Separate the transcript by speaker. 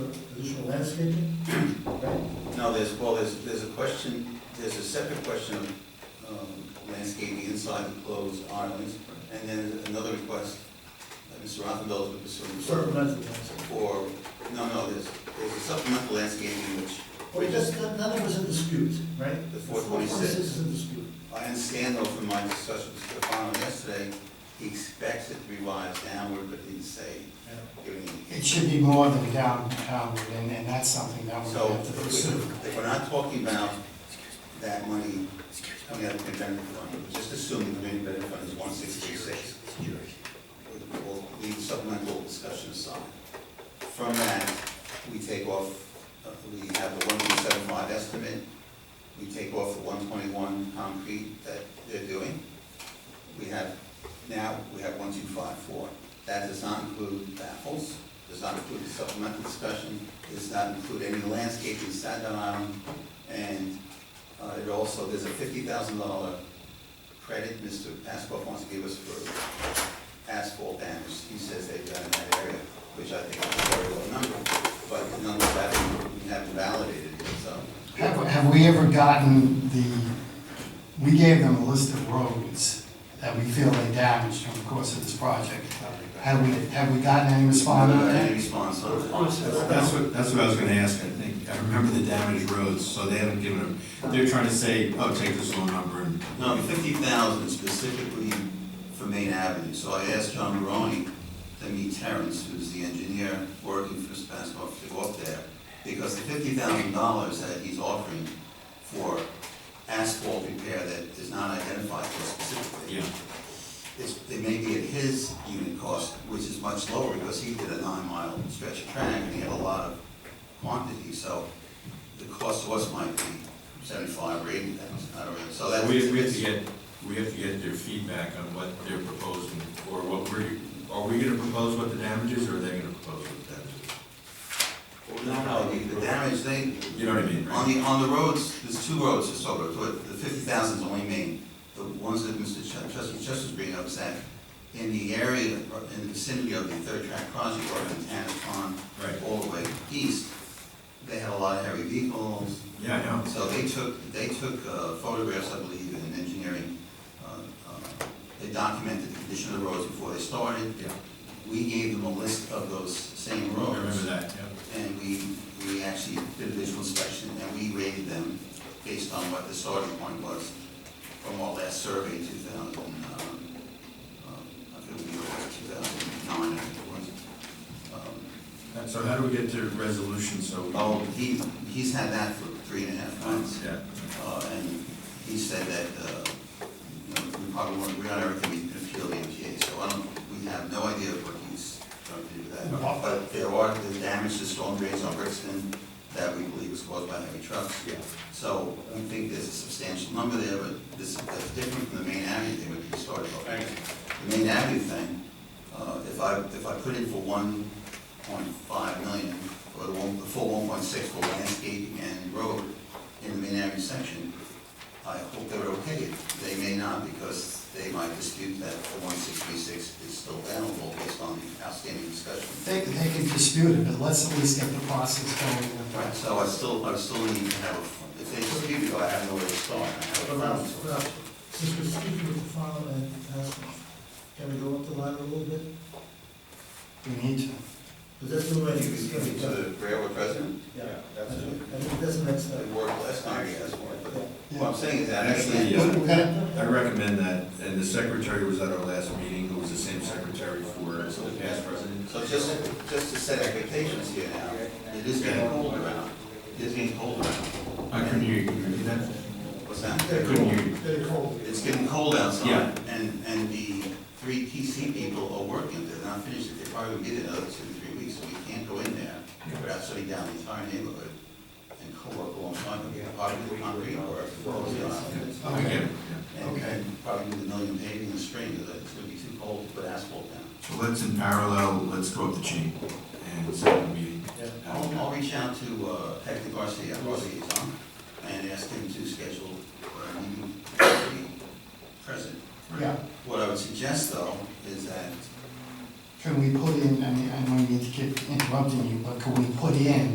Speaker 1: landscaping, right?
Speaker 2: No, there's, well, there's, there's a question, there's a separate question of um, landscaping inside enclosed islands, and then another request that Mr. Rothenfeld is pursuing for,
Speaker 1: Supplemental landscaping.
Speaker 2: for, no, no, there's, there's a supplemental landscaping which,
Speaker 1: Well, that's, that- none of us in dispute, right?
Speaker 2: The 426.
Speaker 1: is in dispute.
Speaker 2: I understand though from my discussion with Stefano yesterday, he expects it to revise downward, but didn't say, give an indication.
Speaker 3: It should be more than downtown, and, and that's something that we
Speaker 2: So
Speaker 3: have to pursue.
Speaker 2: if we're not talking about that money coming out of the community fund, just assuming the community benefit fund is one sixty-six. We'll leave supplemental discussion aside. From that, we take off, uh, we have the one point seven five estimate, we take off the one twenty-one concrete that they're doing. We have, now, we have one two five four. That does not include baffles, does not include the supplemental discussion, does not include any landscaping in Staten Island, and uh, it also, there's a fifty thousand dollar credit Mr. Asquith wants to give us for asphalt damage. He says they've done in that area, which I think is a very low number, but nonetheless, we haven't validated it, so.
Speaker 3: Have, have we ever gotten the, we gave them a list of roads that we feel they damaged from the course of this project. Have we, have we gotten any response on
Speaker 2: Any
Speaker 3: that?
Speaker 2: response on that?
Speaker 1: uh,
Speaker 4: That's what, that's what I was gonna ask, I think, I remember the damaged roads, so they haven't given them, they're trying to say, oh, take this low number and.
Speaker 2: No, fifty thousand specifically for Main Avenue, so I asked John Maroney to meet Terrence, who's the engineer working for Spassmore, to go up there, because the fifty thousand dollars that he's offering for asphalt repair that is not identified here specifically.
Speaker 4: Yeah.
Speaker 2: It's, it may be at his unit cost, which is much lower, because he did a nine-mile stretch of track, and he had a lot of quantity, so the cost to us might be seventy-five or eighty thousand, I don't know, so that's.
Speaker 4: We, we have to get, we have to get their feedback on what they're proposing, or what we're, are we gonna propose what the damage is, or are they gonna propose what the damage is?
Speaker 2: No, no, the the damage, they,
Speaker 4: You know what I mean, right?
Speaker 2: on the, on the roads, there's two roads, just over, but the fifty thousand's only main. The ones that Mr. Ch- Trustee Chester's bringing up is that in the area, or in the vicinity of the third track crossing, or in Tannis Pond,
Speaker 4: Right.
Speaker 2: all the way east, they had a lot of heavy vehicles,
Speaker 4: Yeah, I know.
Speaker 2: so they took, they took uh, photographs, I believe, in engineering. uh, uh, They documented the condition of the roads before they started.
Speaker 4: Yeah,
Speaker 2: We gave them a list of those same
Speaker 4: I
Speaker 2: roads.
Speaker 4: remember that, yeah.
Speaker 2: And we, we actually did a visual inspection, and we rated them based on what the starting point was from our last survey, two thousand, um, um, I think it was two thousand nine, I think it was. Um,
Speaker 4: And So how do we get to resolution, so? we-
Speaker 2: Oh, he, he's had that for three and a half months,
Speaker 4: Yeah,
Speaker 2: uh, and he said that, uh, you know, we probably won't, we're not everything we can appeal the MTA, so I don't, we have no idea what he's trying to do with that. But there are, the damage to storm drains on Brixton that we believe was caused by heavy trucks.
Speaker 4: yeah.
Speaker 2: So I think there's a substantial number there, but this, that's different from the main avenue thing which we started off. with. The main avenue thing, uh, if I, if I put in for one point five million, or the one, the full one point six for landscaping and road in the main avenue section, I hope they're okay. They may not, because they might dispute that the one six three six is still available based on the outstanding discussion.
Speaker 3: They, they can dispute it, but let's at least get the process going.
Speaker 2: Right, so I still, I still need to have, a- if they dispute it, I have nowhere to start. I have a
Speaker 1: Well,
Speaker 2: problem.
Speaker 1: well, uh, Since we're speaking with the farm and Aspen, can we go up the line a little bit?
Speaker 3: We need to.
Speaker 1: Because that's the way
Speaker 2: I think
Speaker 1: it's
Speaker 2: we
Speaker 1: going to be
Speaker 2: give it to
Speaker 1: done.
Speaker 2: the railroad president?
Speaker 1: Yeah. I
Speaker 2: That's
Speaker 1: think,
Speaker 2: it.
Speaker 1: I think that's the next step.
Speaker 2: It worked last time, yes, but what I'm saying is that
Speaker 4: Actually,
Speaker 2: actually,
Speaker 4: yeah.
Speaker 3: We're gonna-
Speaker 4: I recommend that, and the secretary was at our last meeting, who was the same secretary for the past president.
Speaker 2: so just, just to set expectations here now, it is getting cold around, it is getting cold around.
Speaker 4: I couldn't hear you, Can you repeat that?
Speaker 2: What's that?
Speaker 1: Very
Speaker 4: couldn't
Speaker 1: cold,
Speaker 4: hear you.
Speaker 1: very cold.
Speaker 2: It's getting cold outside,
Speaker 4: Yeah.
Speaker 2: and, and the three PC people are working, they're not finished, they probably will get it another two, three weeks, so we can't go in there without shutting down the entire neighborhood and co-work alongside them, probably do concrete work.
Speaker 4: Okay.
Speaker 2: And and probably do the million paving in the spring, because it's gonna be too cold to put asphalt down.
Speaker 4: So let's in parallel, let's go up the chain and set up a meeting.
Speaker 2: I'll, I'll reach out to uh, Hector Garcia, our liaison, and ask him to schedule a meeting to be present.
Speaker 3: Yeah,
Speaker 2: What I would suggest, though, is that
Speaker 3: can we put in, I mean, I know you need to keep interrupting you, but can we put in